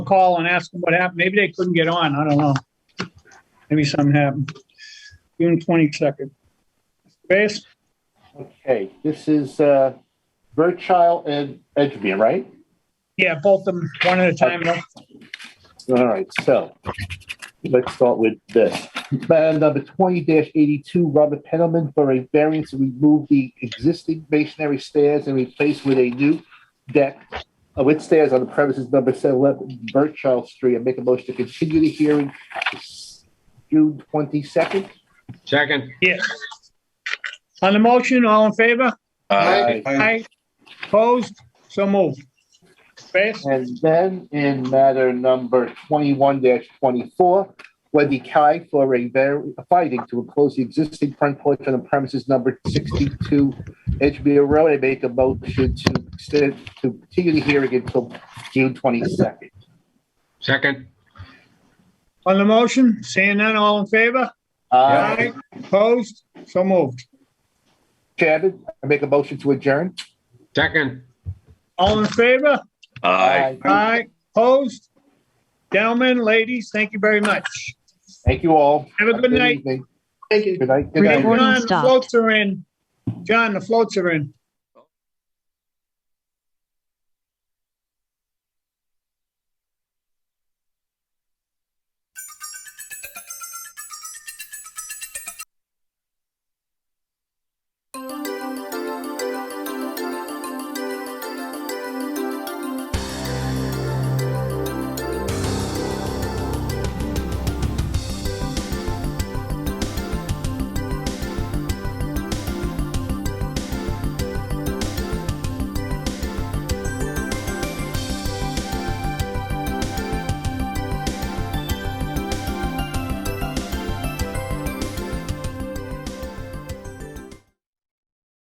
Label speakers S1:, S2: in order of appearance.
S1: call and ask them what happened. Maybe they couldn't get on. I don't know. Maybe something happened. June twenty-second. Base,
S2: Okay, this is uh, Birchall and Edgemere, right?
S1: yeah, both of them, one at a time. no?
S2: All right, so let's start with this. Matter number twenty eighty-two, Robert Penniman for a variance to remove the existing masonry stairs and replace with a new deck uh, with stairs on the premises number seven eleven Birchall Street. I make a motion to continue the hearing to s- June twenty-second.
S3: Second.
S1: Yes. On the motion, all in favor?
S2: Aye.
S1: Aye. Opposed? So moved. Base,
S2: And then in matter number twenty-one twenty-four, Wendy Kai for a var- finding to enclose the existing front porch on the premises number sixty-two Edgemere Road. I make a motion to extend, to continue the hearing until June twenty-second.
S3: Second.
S1: on the motion, seeing none, all in favor?
S2: Uh,
S1: Opposed? So moved.
S2: Chairman, I make a motion to adjourn.
S3: Second.
S1: All in favor? Aye. Opposed? Gentlemen, ladies, thank you very much.
S2: Thank you all.
S1: Have a good night.
S2: evening.
S1: Thank you.
S2: Good night. Good
S1: John,
S2: night.
S4: Recording
S1: the
S4: stopped.
S1: floats are in. John, the floats are in.